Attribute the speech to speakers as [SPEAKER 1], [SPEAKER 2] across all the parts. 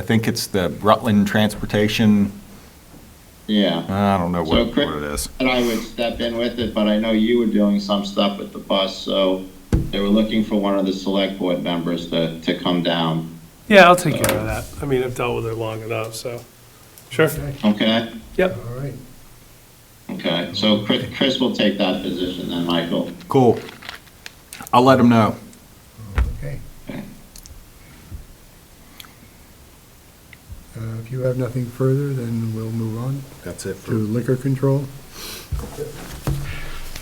[SPEAKER 1] I think it's the Rutland Transportation,
[SPEAKER 2] Yeah.
[SPEAKER 1] I don't know
[SPEAKER 2] So
[SPEAKER 1] what,
[SPEAKER 2] Chris-
[SPEAKER 1] what it is.
[SPEAKER 2] And I would step in with it, but I know you were doing some stuff with the bus, so they were looking for one of the select board members to, to come down,
[SPEAKER 3] Yeah, I'll take care of that. I mean, I've dealt with it long enough, so, sure.
[SPEAKER 2] okay?
[SPEAKER 3] Yep,
[SPEAKER 4] All right,
[SPEAKER 2] Okay, so Chris, Chris will take that position then, Michael.
[SPEAKER 1] Cool. I'll let them know.
[SPEAKER 4] okay. Uh, If you have nothing further, then we'll move on
[SPEAKER 1] That's it
[SPEAKER 4] to liquor control.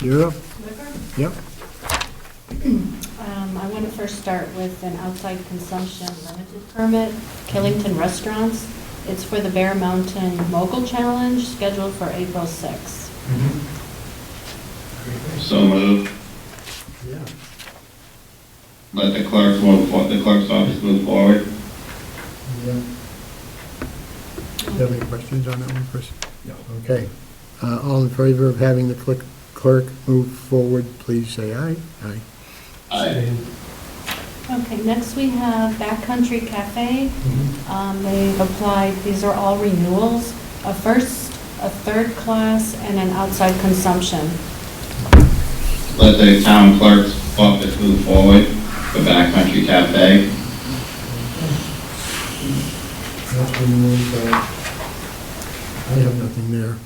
[SPEAKER 4] You're up. Yep,
[SPEAKER 5] Um, I want to first start with an outside consumption limited permit, Killington Restaurants. It's for the Bear Mountain Mogul Challenge, scheduled for April 6th.
[SPEAKER 2] So move.
[SPEAKER 4] Yeah.
[SPEAKER 2] Let the clerk move, the clerk's office move forward.
[SPEAKER 4] yeah. Do you have any questions on that one, Chris? No. Okay. Uh, All in favor of having the click- clerk move forward, please say aye. Aye.
[SPEAKER 2] Aye.
[SPEAKER 5] Okay, next we have Backcountry Cafe. Um, They've applied, these are all renewals, a first, a third class, and an outside consumption.
[SPEAKER 2] Let the town clerk's office move forward for Backcountry Cafe.
[SPEAKER 4] That's been moved by- I have nothing there.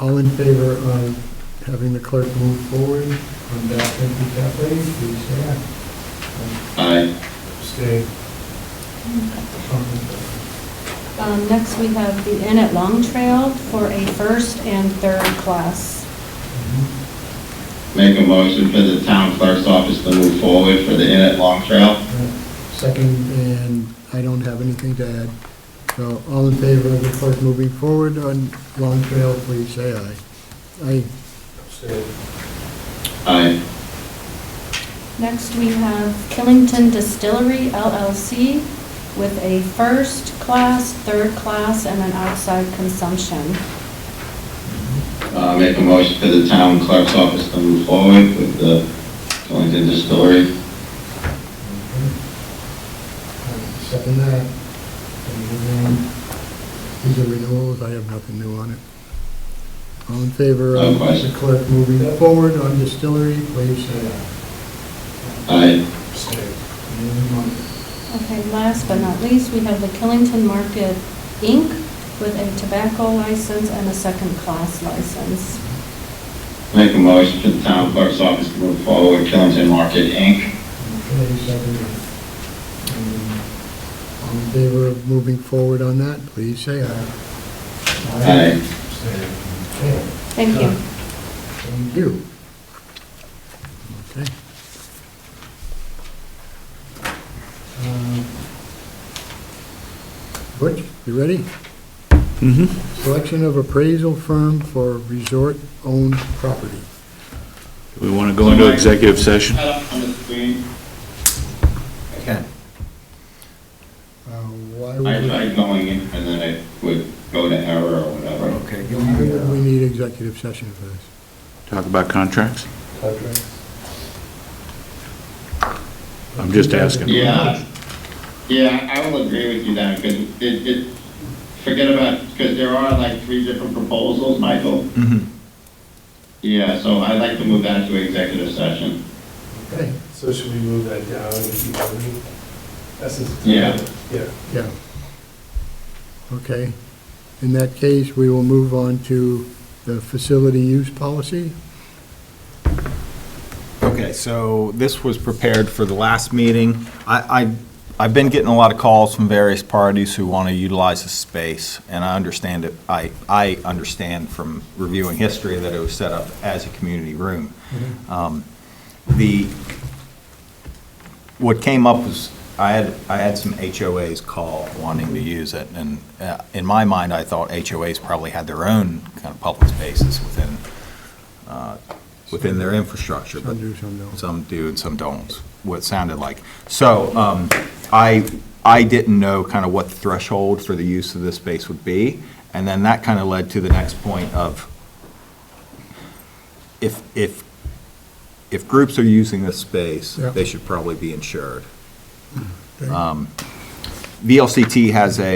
[SPEAKER 4] All in favor of having the clerk move forward on that empty cafe, please say aye.
[SPEAKER 2] Aye.
[SPEAKER 4] Stay.
[SPEAKER 5] Um, Next we have the Inn at Long Trail for a first and third class.
[SPEAKER 4] Mm-hmm.
[SPEAKER 2] Make a motion for the town clerk's office to move forward for the Inn at Long Trail.
[SPEAKER 4] Second, and I don't have anything to add. So all in favor of the clerk moving forward on Long Trail, please say aye. Aye.
[SPEAKER 2] Aye.
[SPEAKER 5] Next, we have Killington Distillery LLC with a first class, third class, and an outside consumption.
[SPEAKER 2] Uh, make a motion for the town clerk's office to move forward with the Killington Distillery.
[SPEAKER 4] Second that. And then, These are renewals, I have nothing new on it. All in favor
[SPEAKER 2] No
[SPEAKER 4] of the
[SPEAKER 2] question.
[SPEAKER 4] clerk moving forward on distillery, please say aye.
[SPEAKER 2] Aye.
[SPEAKER 4] Moving on.
[SPEAKER 5] Okay, last but not least, we have the Killington Market Inc. with a tobacco license and a second class license.
[SPEAKER 2] Make a motion for the town clerk's office to move forward with Killington Market, Inc.
[SPEAKER 4] Okay, second. Um, All in favor of moving forward on that, please say aye.
[SPEAKER 2] Aye.
[SPEAKER 4] Okay,
[SPEAKER 5] Thank you.
[SPEAKER 4] Thank you. Okay. Um, Uh, Butch, you ready?
[SPEAKER 6] Mm-hmm.
[SPEAKER 4] Selection of appraisal firm for resort-owned property.
[SPEAKER 6] We want to go into executive session?
[SPEAKER 2] Shut up on the screen.
[SPEAKER 1] Okay.
[SPEAKER 4] Uh, Why
[SPEAKER 2] I
[SPEAKER 4] would
[SPEAKER 2] tried going in and then it would go to error or whatever.
[SPEAKER 1] Okay.
[SPEAKER 4] we- why would we need executive session for this?
[SPEAKER 6] Talk about contracts? I'm just asking.
[SPEAKER 2] Yeah, yeah, I will agree with you then, because it, it, forget about, because there are like three different proposals, Michael.
[SPEAKER 1] Mhm.
[SPEAKER 6] Mm-hmm.
[SPEAKER 2] Yeah, so I'd like to move that to executive session.
[SPEAKER 4] Okay,
[SPEAKER 7] So should we move that down and keep moving? That's just.
[SPEAKER 2] Yeah.
[SPEAKER 7] Yeah.
[SPEAKER 4] yeah. Okay. In that case, we will move on to the facility use policy.
[SPEAKER 1] Okay, so this was prepared for the last meeting. I, I, I've been getting a lot of calls from various parties who want to utilize the space, and I understand it, I, I understand from reviewing history that it was set up as a community room. Um, The, what came up was, I had, I had some HOAs call wanting to use it, and uh, in my mind, I thought HOAs probably had their own kind of public spaces within, uh, within their infrastructure, but
[SPEAKER 4] Some do, some don't.
[SPEAKER 1] some do and some don't, what it sounded like. So um, I, I didn't know kind of what the threshold for the use of this space would be, and then that kind of led to the next point of if, if, if groups are using this space,
[SPEAKER 4] Yeah. Mm-hmm.
[SPEAKER 1] they should probably be insured.
[SPEAKER 4] Okay.
[SPEAKER 1] Um, VLCT has a